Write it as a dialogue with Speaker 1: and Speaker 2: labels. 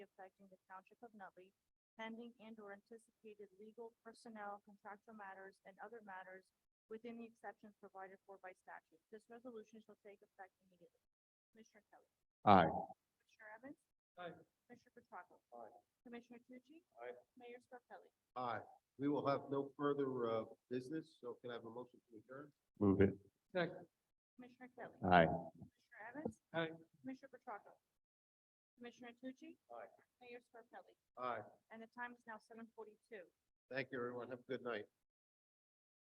Speaker 1: affecting the township of Nutley, pending and or anticipated legal, personnel, contractual matters, and other matters within the exceptions provided for by statute. This resolution shall take effect immediately. Commissioner Kelly.
Speaker 2: Aye.
Speaker 1: Commissioner Evans.
Speaker 2: Aye.
Speaker 1: Commissioner Petracca.
Speaker 2: Aye.
Speaker 1: Commissioner Tucci.
Speaker 2: Aye.
Speaker 1: Mayor Scarpelli.
Speaker 2: Aye. We will have no further uh, business, so can I have a motion to adjourn?
Speaker 3: Move it.
Speaker 2: Second.
Speaker 1: Commissioner Kelly.
Speaker 3: Aye.
Speaker 1: Commissioner Evans.
Speaker 2: Aye.
Speaker 1: Commissioner Petracca. Commissioner Tucci.
Speaker 2: Aye.
Speaker 1: Mayor Scarpelli.
Speaker 2: Aye.
Speaker 1: And the time is now seven forty-two.
Speaker 2: Thank you, everyone. Have a good night.